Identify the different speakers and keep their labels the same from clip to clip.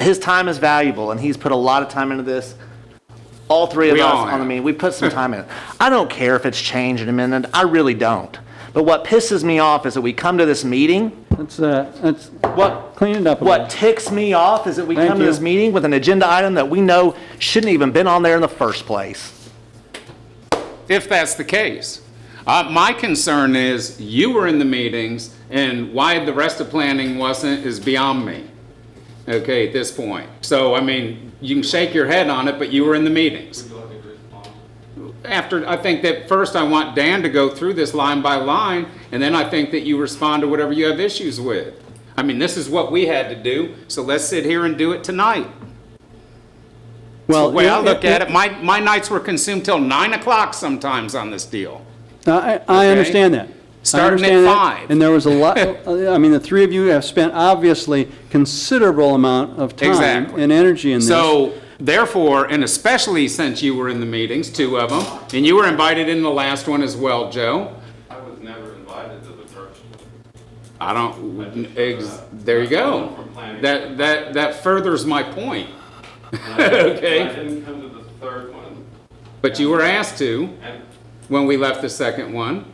Speaker 1: his time is valuable, and he's put a lot of time into this. All three of
Speaker 2: We
Speaker 1: us
Speaker 2: all
Speaker 1: on the
Speaker 2: have.
Speaker 1: meeting, we put some time in. it. I don't care if it's changed in a minute. I really don't. But what pisses me off is that we come to this meeting.
Speaker 3: Let's, uh, let's
Speaker 1: What
Speaker 3: clean it up a
Speaker 1: What
Speaker 3: little.
Speaker 1: ticks me off is that we
Speaker 3: Thank
Speaker 1: come to
Speaker 3: you.
Speaker 1: this meeting with an agenda item that we know shouldn't even been on there in the first place.
Speaker 2: if that's the case. Uh, my concern is you were in the meetings and why the rest of planning wasn't is beyond me. Okay, at this point. So, I mean, you can shake your head on it, but you were in the meetings. After, I think that first I want Dan to go through this line by line and then I think that you respond to whatever you have issues with. I mean, this is what we had to do, so let's sit here and do it tonight. The
Speaker 3: Well,
Speaker 2: way I look at it, my, my nights were consumed till nine o'clock sometimes on this deal.
Speaker 3: I, I understand that. I
Speaker 2: Starting at
Speaker 3: understand that,
Speaker 2: five.
Speaker 3: And there was a lot, I mean, the three of you have spent obviously considerable amount of time
Speaker 2: Exactly.
Speaker 3: and energy in this.
Speaker 2: So therefore, and especially since you were in the meetings, two of them, and you were invited in the last one as well, Joe.
Speaker 4: I was never invited to the first one.
Speaker 2: I don't, ex- there you go. That, that, that furthers my point.
Speaker 4: I
Speaker 2: Okay,
Speaker 4: didn't come to the third one,
Speaker 2: but you were asked to
Speaker 4: and
Speaker 2: when we left the second one.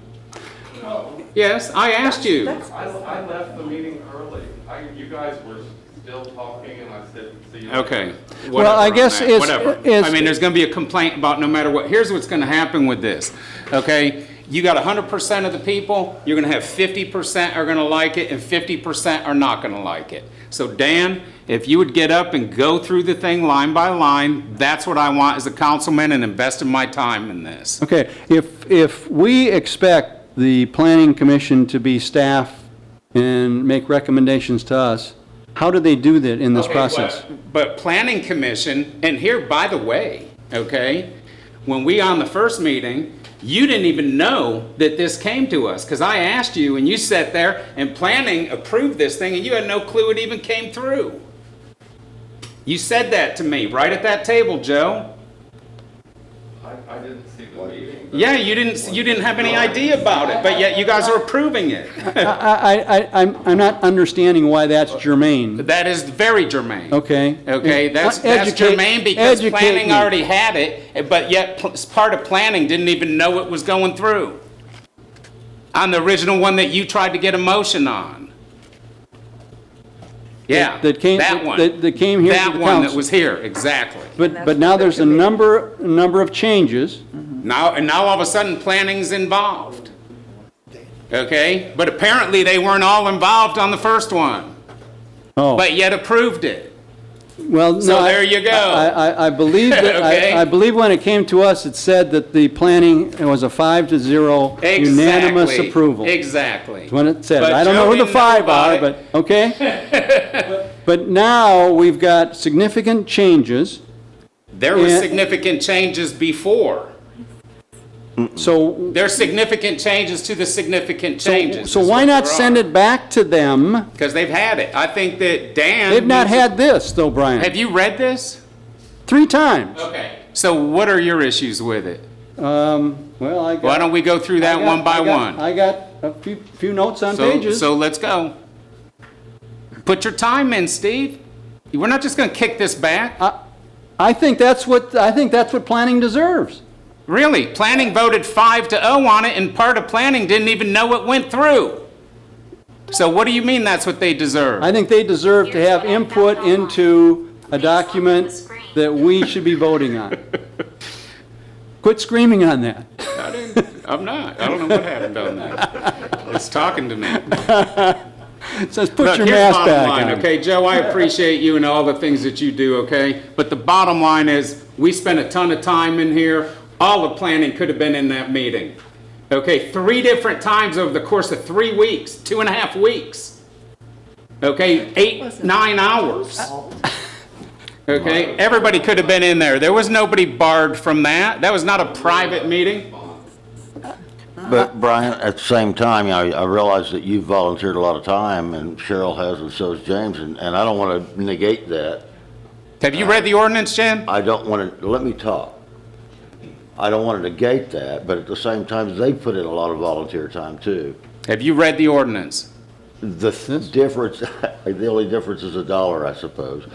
Speaker 4: no,
Speaker 2: Yes, I asked you.
Speaker 4: I, I left the meeting early. I, you guys were still talking, and I said, see you. later."
Speaker 2: Okay.
Speaker 3: Well,
Speaker 2: whatever
Speaker 3: I
Speaker 2: on
Speaker 3: guess
Speaker 2: that,
Speaker 3: it's-
Speaker 2: Whatever.
Speaker 3: it's-
Speaker 2: I mean, there's gonna be a complaint about no matter what. Here's what's gonna happen with this, okay? You got hundred percent of the people, you're gonna have fifty percent are gonna like it and fifty percent are not gonna like it. So Dan, if you would get up and go through the thing line by line, that's what I want as a councilman and investing my time in this.
Speaker 3: Okay, if, if we expect the planning commission to be staff and make recommendations to us, how do they do that in this
Speaker 2: Okay, but-
Speaker 3: process?
Speaker 2: But planning commission, and here, by the way, okay, when we on the first meeting, you didn't even know that this came to us, because I asked you and you sat there and planning approved this thing and you had no clue it even came through. You said that to me right at that table, Joe.
Speaker 4: I, I didn't see the meeting. but-
Speaker 2: Yeah, you didn't, you didn't have any idea about it, but yet you guys are approving it.
Speaker 3: I, I, I, I'm, I'm not understanding why that's germane,
Speaker 2: That is very germane.
Speaker 3: okay?
Speaker 2: Okay, that's, that's
Speaker 3: Educate-
Speaker 2: germane because
Speaker 3: educate
Speaker 2: planning
Speaker 3: me.
Speaker 2: already had it, but yet pl- part of planning didn't even know it was going through. On the original one that you tried to get a motion on. Yeah,
Speaker 3: That came-
Speaker 2: that
Speaker 3: that-
Speaker 2: one.
Speaker 3: that- that came here to
Speaker 2: That
Speaker 3: the
Speaker 2: one that
Speaker 3: council.
Speaker 2: was here, exactly.
Speaker 3: But, but now there's a number, number of changes.
Speaker 2: Now, and now all of a sudden, planning's involved. Okay, but apparently they weren't all involved on the first one,
Speaker 3: Oh,
Speaker 2: but yet approved it.
Speaker 3: well, no.
Speaker 2: so
Speaker 3: I-
Speaker 2: there you go.
Speaker 3: I, I, I believe that,
Speaker 2: Okay.
Speaker 3: I, I believe when it came to us, it said that the planning, it was a five to zero unanimous
Speaker 2: Exactly,
Speaker 3: approval.
Speaker 2: Exactly.
Speaker 3: When it said,
Speaker 2: But
Speaker 3: I don't
Speaker 2: Joe
Speaker 3: know who the
Speaker 2: didn't
Speaker 3: five
Speaker 2: about
Speaker 3: are,
Speaker 2: it.
Speaker 3: but, okay? But now, we've got significant changes,
Speaker 2: There were
Speaker 3: Yeah.
Speaker 2: significant changes before.
Speaker 3: so,
Speaker 2: There's significant changes to the significant
Speaker 3: so
Speaker 2: changes.
Speaker 3: so why not send it back to them?
Speaker 2: Because they've had it. I think that Dan.
Speaker 3: They've not
Speaker 2: needs to-
Speaker 3: had this, though,
Speaker 2: Have
Speaker 3: Brian,
Speaker 2: you read this?
Speaker 3: three times.
Speaker 2: Okay. So what are your issues with it?
Speaker 3: Um, well, I got.
Speaker 2: Why don't we go through
Speaker 3: I
Speaker 2: that
Speaker 3: got-
Speaker 2: one by
Speaker 3: I got-
Speaker 2: one?
Speaker 3: I got a few, few notes on
Speaker 2: So-
Speaker 3: pages.
Speaker 2: So let's go. Put your time in, Steve. We're not just going to kick this back.
Speaker 3: I- I think that's what, I think that's what planning deserves.
Speaker 2: Really, planning voted five to oh on it, and part of planning didn't even know it went through. So what do you mean that's what they deserve?
Speaker 3: I think they deserve to have input into a document that we should be voting on. Quit screaming on that.
Speaker 2: I didn't, I'm not. I don't know what happened on that. It's talking to me.
Speaker 3: It says, put
Speaker 2: Look,
Speaker 3: your
Speaker 2: here's
Speaker 3: mask
Speaker 2: bottom
Speaker 3: back
Speaker 2: line,
Speaker 3: on.
Speaker 2: Okay, Joe, I appreciate you and all the things that you do, okay? But the bottom line is, we spent a ton of time in here. All the planning could have been in that meeting. Okay, three different times over the course of three weeks, two and a half weeks. Okay, eight, nine hours. Okay, everybody could have been in there. There was nobody barred from that. That was not a private meeting.
Speaker 5: But Brian, at the same time, I, I realize that you've volunteered a lot of time, and Cheryl has, and so has James, and, and I don't want to negate that.
Speaker 2: Have you read the ordinance, Jen?
Speaker 5: I don't want to, let me talk. I don't want to negate that, but at the same time, they put in a lot of volunteer time too.
Speaker 2: Have you read the ordinance?
Speaker 5: The th- difference, the only difference is a dollar, I suppose.